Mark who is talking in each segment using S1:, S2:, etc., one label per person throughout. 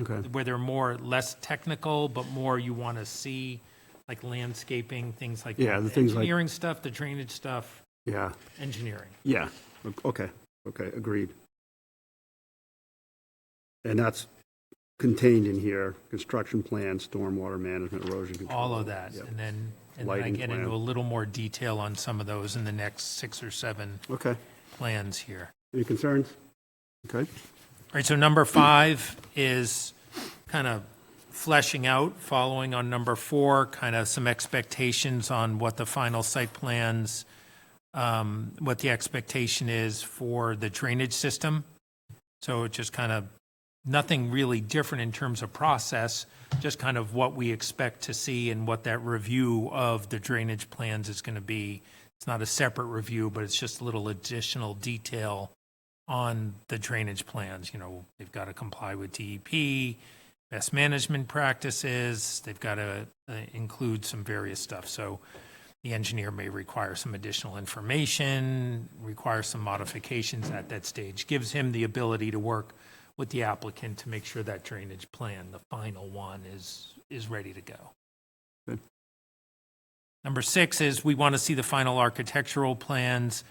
S1: Okay.
S2: where they're more, less technical, but more you want to see, like landscaping, things like.
S1: Yeah, the
S2: that.
S1: things like-
S2: Engineering stuff, the drainage stuff,
S1: Yeah,
S2: engineering.
S1: yeah, O- okay, okay, agreed. And that's contained in here, construction plan, stormwater management, erosion control.
S2: all of that,
S1: Yep.
S2: and then, and then I
S1: Lighting
S2: get
S1: plan.
S2: into a little more detail on some of those in the next six or seven
S1: Okay,
S2: plans here.
S1: any concerns? Okay,
S2: All right, so number five is kind of fleshing out, following on number four, kind of some expectations on what the final site plans, um, what the expectation is for the drainage system. So it just kind of, nothing really different in terms of process, just kind of what we expect to see and what that review of the drainage plans is going to be. It's not a separate review, but it's just a little additional detail on the drainage plans, you know, they've got to comply with DEP, best management practices, they've got to uh, include some various stuff. So the engineer may require some additional information, require some modifications at that stage. Gives him the ability to work with the applicant to make sure that drainage plan, the final one, is, is ready to go.
S1: Good.
S2: Number six is we want to see the final architectural plans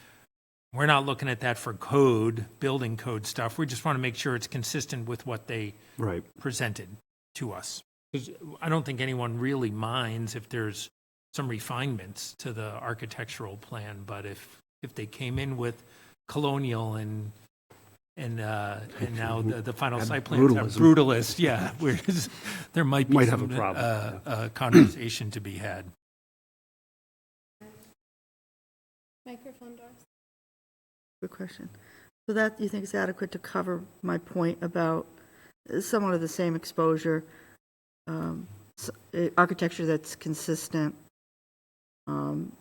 S2: we're not looking at that for code, building code stuff. We just want to make sure it's consistent with what they
S1: right,
S2: presented to us. 'Cause I don't think anyone really minds if there's some refinements to the architectural plan, but if, if they came in with colonial and, and, uh, and now the, the final
S1: And
S2: site plans are
S1: brutalism.
S2: brutalist, yeah, where is- there might be
S1: Might have a
S2: some,
S1: problem,
S2: uh, uh, conversation to be had.
S3: Microphone doors.
S4: Good question. So that, you think is adequate to cover my point about uh, somewhat of the same exposure, um, s- uh, architecture that's consistent? Um,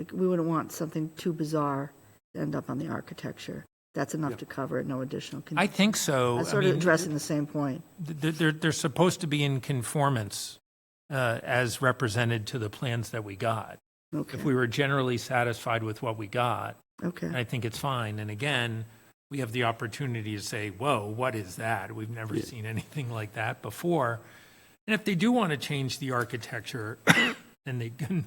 S4: uh, We wouldn't want something too bizarre to end up on the architecture. That's enough to cover it, no additional. con-
S2: I think so.
S4: That's
S2: I
S4: sort of
S2: mean,
S4: addressing the same point.
S2: they're, they're- they're supposed to be in conformance uh, as represented to the plans that we got.
S4: Okay,
S2: If we were generally satisfied with what we got,
S4: okay,
S2: I think it's fine. And again, we have the opportunity to say, whoa, what is that? We've never seen anything like that before. And if they do want to change the architecture, then they can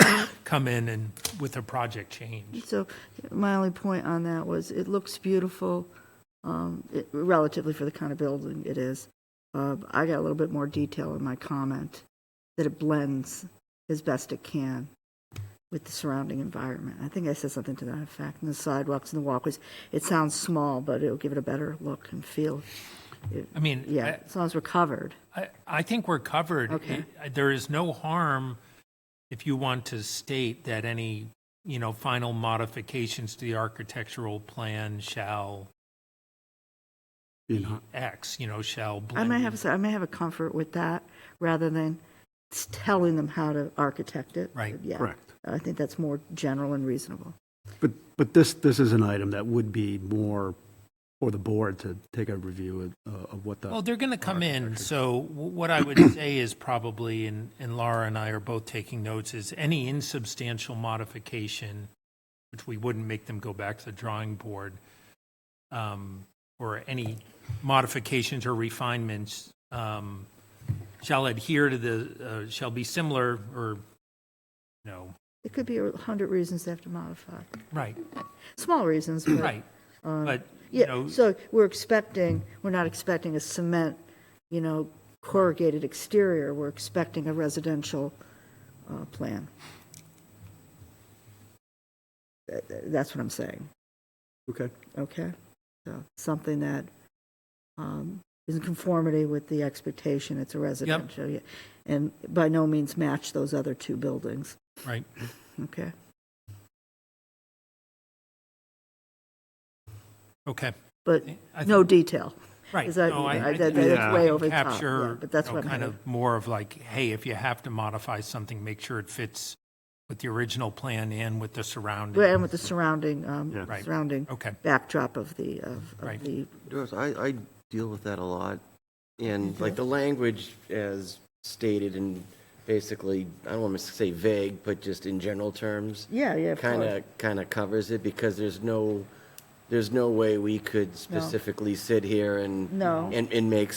S2: come in and with a project change.
S4: so my only point on that was, it looks beautiful, um, it- relatively for the kind of building it is. Uh, I got a little bit more detail in my comment, that it blends as best it can with the surrounding environment. I think I said something to that effect, and the sidewalks and the walkways. It sounds small, but it'll give it a better look and feel.
S2: I mean,
S4: Yeah, as long as we're covered.
S2: I, I think we're covered.
S4: Okay.
S2: It- There is no harm if you want to state that any, you know, final modifications to the architectural plan shall
S1: you know,
S2: X, you know, shall
S4: I
S2: blend.
S4: may have, I may have a comfort with that, rather than s- telling them how to architect it.
S2: Right.
S4: Yeah.
S1: correct.
S4: I think that's more general and reasonable.
S1: But, but this, this is an item that would be more for the board to take a review of, uh, of what the.
S2: Well, they're going to come in, so wh- what I would say is probably, and and Laura and I are both taking notes, is any insubstantial modification, which we wouldn't make them go back to the drawing board, um, or any modifications or refinements um, shall adhere to the, uh, shall be similar or, no,
S4: It could be a hundred reasons they have to modify,
S2: right,
S4: small reasons, but.
S2: right. But, you
S4: Yeah,
S2: know,
S4: so we're expecting, we're not expecting a cement, you know, corrugated exterior, we're expecting a residential uh, plan. That- that- That's what I'm saying,
S1: Okay,
S4: okay? So Something that um, is in conformity with the expectation, it's a residential, yeah, and by no means match those other two buildings,
S2: right.
S4: okay?
S2: Okay.
S4: But
S2: I
S4: no detail.
S2: Right.
S4: Is that-
S2: No, I-
S4: I-
S2: I
S4: that-
S2: think
S1: that's
S4: way
S2: we
S4: over the top,
S2: capture,
S4: yeah, but that's
S2: you know,
S4: what I'm
S2: Kind
S4: hearing.
S2: of more of like, hey, if you have to modify something, make sure it fits with the original plan and with the
S4: Well,
S2: surrounding.
S4: And with the surrounding, um,
S1: Yeah.
S2: Right.
S4: surrounding
S2: Okay,
S4: backdrop of the, of of
S2: Right.
S4: the
S5: Doris, I, I deal with that a lot, and like the language as stated and basically, I don't want to say vague, but just in general terms,
S4: Yeah, yeah, of
S5: kind
S4: course.
S5: of, kind of covers it, because there's no, there's no way we could specifically sit here and,
S4: No.
S5: and, and make